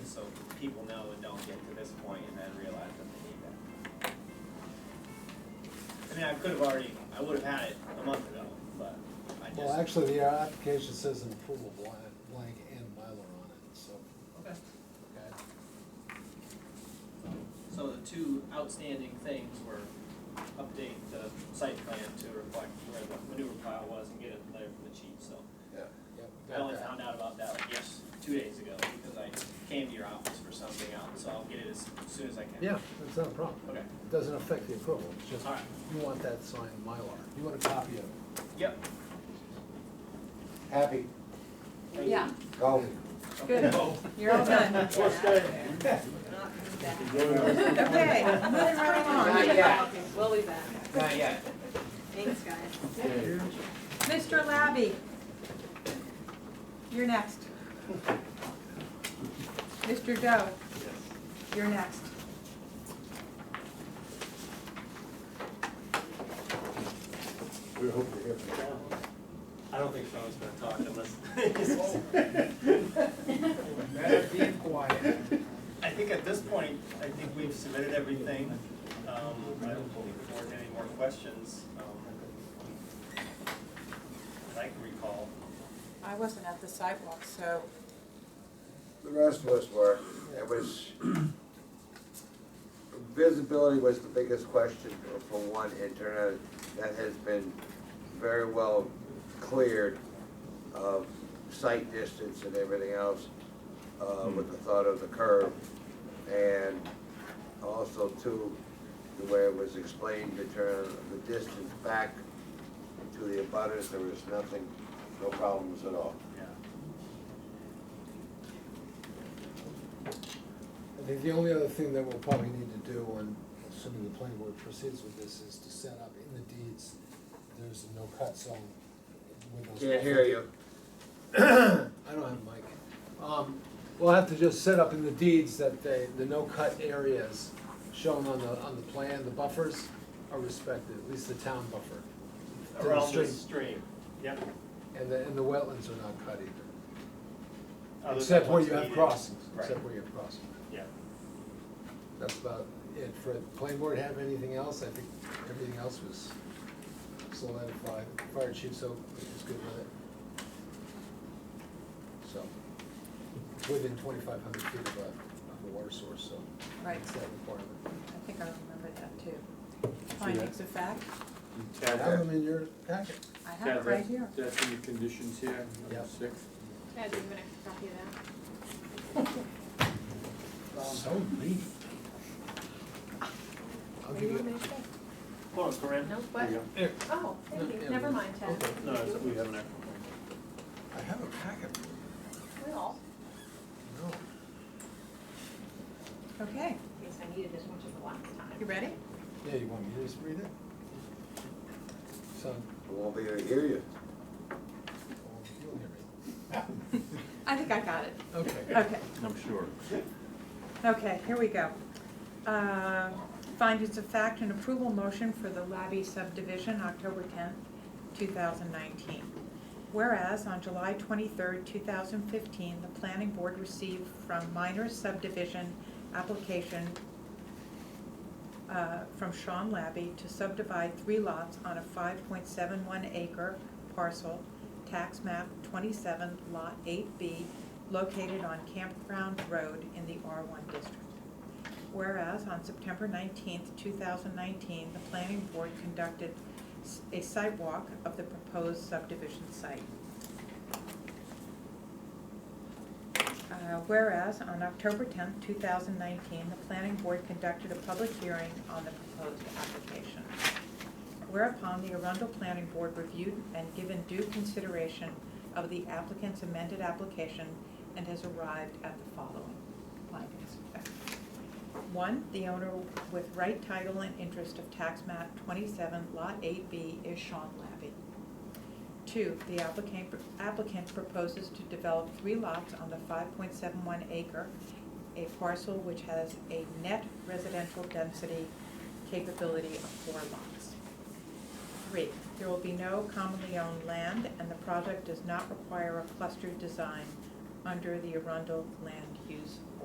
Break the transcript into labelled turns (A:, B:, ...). A: people know and don't get to this point and then realize that they need that. I mean, I could have already, I would have had it a month ago, but I just.
B: Well, actually, the application says an approval blank, blank and Mylar on it, so.
A: Okay.
B: Okay.
A: So the two outstanding things were update the site plan to reflect where the manure pile was and get a letter from the chief, so.
B: Yeah.
A: I only found out about that like yes, two days ago, because I came to your office for something else, so I'll get it as soon as I can.
B: Yeah, that's not a problem.
A: Okay,
B: It doesn't affect the approval, it's just,
A: Alright.
B: you want that signed Mylar. You want a copy of it.
A: yep.
C: Happy,
A: Thank you.
D: Yeah,
C: go.
A: Okay,
D: Good.
A: cool.
D: you're all done.
E: Okay, moving right
D: Not
E: along.
D: yet. We'll be back.
C: Not yet.
D: Thanks, guys.
E: Mr. Labby, you're next. Mr. Doe, you're next.
C: We hope to hear from
A: I don't think Sean's gonna talk unless.
F: Better be quiet.
A: I think at this point, I think we've submitted everything. Um, I don't think the board had any more questions, um, that I can recall.
E: I wasn't at the sidewalk, so
C: The rest of us were, it was, visibility was the biggest question for- for one internet that has been very well cleared of sight distance and everything else, uh, with the thought of the curve. And also too, the way it was explained, the turn, the distance back to the abutters, there was nothing, no problems at all.
A: Yeah.
B: I think the only other thing that we'll probably need to do when, assuming the planning board proceeds with this, is to set up in the deeds, there's a no-cut zone. with those-
C: Can't hear you.
B: I don't have a mic. Um, we'll have to just set up in the deeds that they, the no-cut areas shown on the, on the plan, the buffers are respected, at least the town buffer. To the
A: Around the
B: stream.
A: stream, yep.
B: And the, and the wetlands are not cut either,
A: Other than
B: except where
A: what's
B: you have
A: needed.
B: crossings, except
A: Right,
B: where you have crossings.
A: yeah.
B: That's about it. For the planning board, have anything else? I think everything else was solidified. Fire chief, so is good with it. So, it's within twenty-five hundred feet of a, of a water source, so.
E: Right.
B: It's that requirement.
E: I think I remember that too. Findings of fact,
B: I
G: Tab,
B: Have them in your packet.
E: I have
G: tab,
E: it right
G: that's,
E: here.
G: that's in the conditions here,
B: Yep.
G: number six.
D: Ted, do you have an extra copy of that?
B: So neat. I'll give you,
A: Hold on, Corinne.
D: No, what?
B: Here.
D: Oh,
B: No,
D: thank
B: yeah,
D: you. Never
B: we-
D: mind, Ted.
B: okay.
A: No, it's- we have an extra.
B: I have a packet.
D: We all.
B: No.
E: Okay,
D: In case I needed as much as the last
E: you
D: time.
E: ready?
B: Yeah, you want me to just read it? So,
C: I won't be able to hear you.
B: oh, you'll hear me.
E: I think I got it.
B: Okay.
E: Okay.
G: I'm sure.
E: Okay, here we go. Uh, Findings of fact and approval motion for the Labby subdivision, October 10th, 2019. Whereas on July 23rd, 2015, the planning board received from minor subdivision application uh, from Sean Labby to subdivide three lots on a 5.71 acre parcel, tax map 27, lot 8B, located on Campground Road in the R1 district. Whereas on September 19th, 2019, the planning board conducted s- a site walk of the proposed subdivision site. Uh, Whereas on October 10th, 2019, the planning board conducted a public hearing on the proposed application. Whereupon the Arundel Planning Board reviewed and given due consideration of the applicant's amended application and has arrived at the following findings. of fact. One, the owner with right title and interest of tax map 27, Lot 8B is Sean Labby. Two, the applicant, applicant proposes to develop three lots on the five point seven one acre, a parcel which has a net residential density capability of four lots. Three, there will be no commonly owned land, and the project does not require a cluster design under the Arundel land use